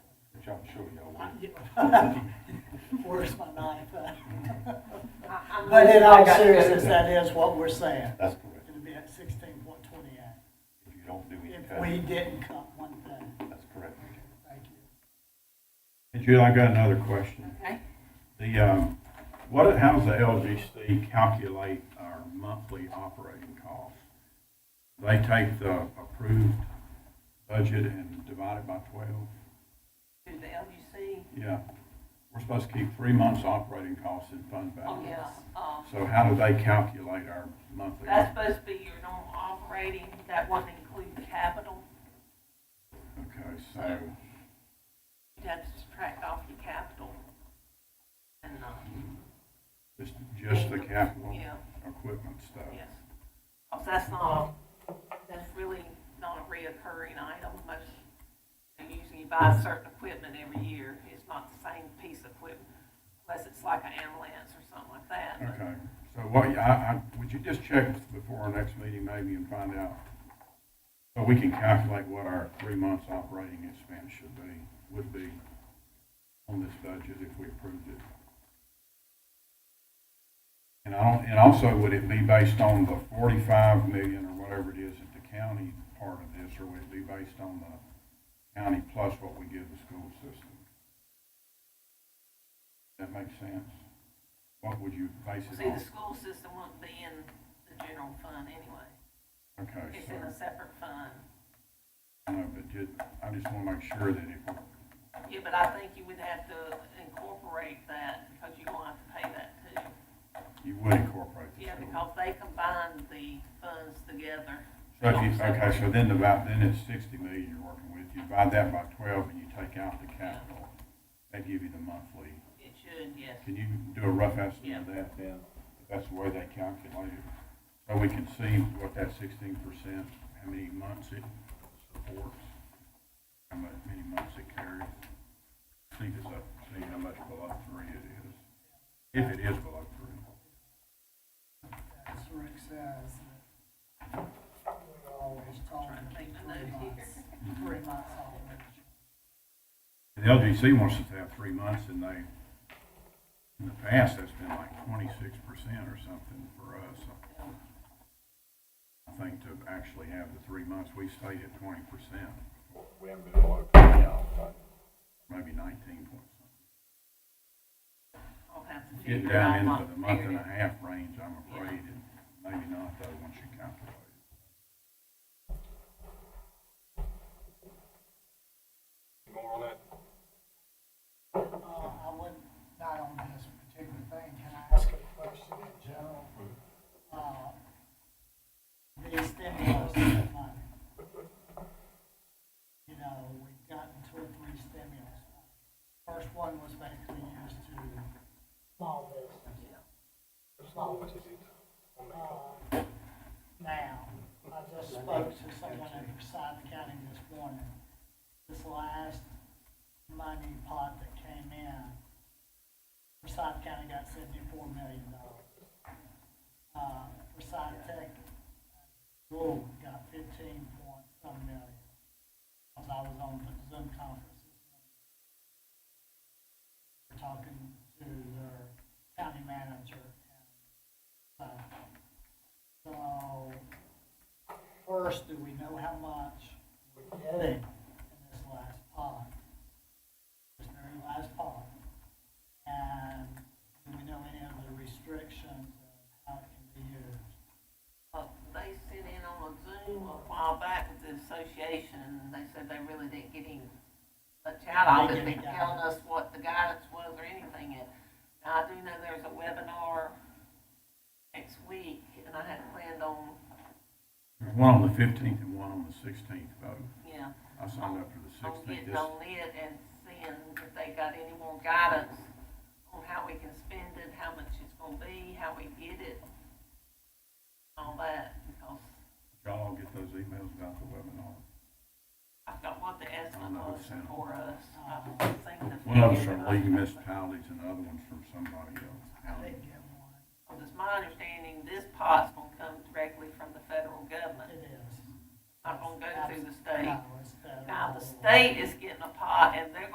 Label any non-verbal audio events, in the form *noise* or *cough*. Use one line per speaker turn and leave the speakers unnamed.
I'm sure y'all
I-
will.
yeah. *laughs* Where's my knife?
I- I'm-
But in
I
all
got-
seriousness, that is what we're saying.
That's correct.
It'd be at sixteen point twenty-eight,
If you don't do any
uh,
if we
cutting,
didn't cut one thing.
that's correct.
Thank you.
And Julie, I got another question.
Okay,
The, um, what, how does the LGC calculate our monthly operating costs? They take the approved budget and divide it by twelve?
to the LUC,
Yeah, we're supposed to keep three months' operating costs in fund
oh,
balance.
yeah, um,
So how do they calculate our monthly?
that's supposed to be your normal operating, that one include capital,
Okay, so,
you'd have to subtract off your capital. And, um,
just, just the capital
yeah,
equipment stuff?
yes, 'Cause that's not, that's really not a reoccurring item, most, they usually buy certain equipment every year, it's not the same piece of equipment, unless it's like an ambulance or something like that, but-
Okay, so what, I, I, would you just check before our next meeting maybe and find out? So we can calculate what our three months operating expense should be, would be on this budget if we approved it. And I don't, and also would it be based on the forty-five million or whatever it is at the county part of this, or would it be based on the county plus what we give the school system? That makes sense? What would you base it
See, the
on?
school system wouldn't be in the general fund anyway.
Okay,
It's
so,
in a separate fund.
I know, but ju- I just wanna make sure that if, we-
Yeah, but I think you would have to incorporate that because you're gonna have to pay that too.
you would incorporate the
Yeah,
school.
because they combine the funds together.
So if you, okay, so then about, then it's sixty million you're working with, you divide that by twelve and you take out the capital. They give you the monthly,
It should, yes.
can you do a rough estimate of that then? That's the way they calculate it, so we can see what that sixteen percent, how many months it supports, how mu- many months it carries. See if it's up, see how much below three it is, if it is below three.
As Rick says, that we always talk
Trying to
about
make my
three
notes
months,
here.
three months
The
already.
LGC wants us to have three months, and they, in the past, that's been like twenty-six percent or something for us. I think to actually have the three months, we stayed at twenty percent,
We haven't been able to, yeah, but
maybe nineteen point something.
I'll have to
Getting
figure
down
out
into
what
the month and a
period.
half range, I'm afraid, and maybe not though, once you calculate.
more on that
Uh, I wouldn't, not on this particular thing, can I ask a question in general? Uh, The stimulus money. You know, we've gotten two or three stimulus. First one was basically used to small business. Small business. Uh, Now, I just spoke to someone at Forsyth County this morning. This last money pot that came in, Forsyth County got seventy-four million dollars. Uh, Forsyth Tech, Gould got fifteen point some million, because I was on the Zoom conference. We're talking to their county manager. and, uh, So, first, do we know how much we're getting in this last pot? this very last part. And do we know any of the restrictions of how it can be used?
Uh, They sent in on a Zoom a while back with the association, and they said they really didn't get any much out of
They
it,
didn't
they
get
telling
it.
us what the guidance was or anything. And Now, I do know there's a webinar next week, and I had planned on,
There's one on the fifteenth and one on the sixteenth, though.
you know,
I signed up for the
on
sixteenth,
getting
this,
on it and seeing if they got any more guidance on how we can spend it, how much it's gonna be, how we get it, all that, because
y'all all get those emails about the webinar.
I forgot what the estimate
don't know
was
what's in it.
for us. I haven't seen the
One of them's
figure,
from
but-
League of Municipalities and the other one's from somebody else.
I didn't get one.
Well, it's my understanding this pot's gonna come directly from the federal government,
It is.
not gonna go through the state.
No, it's federal.
Now, the state is getting a pot, and they're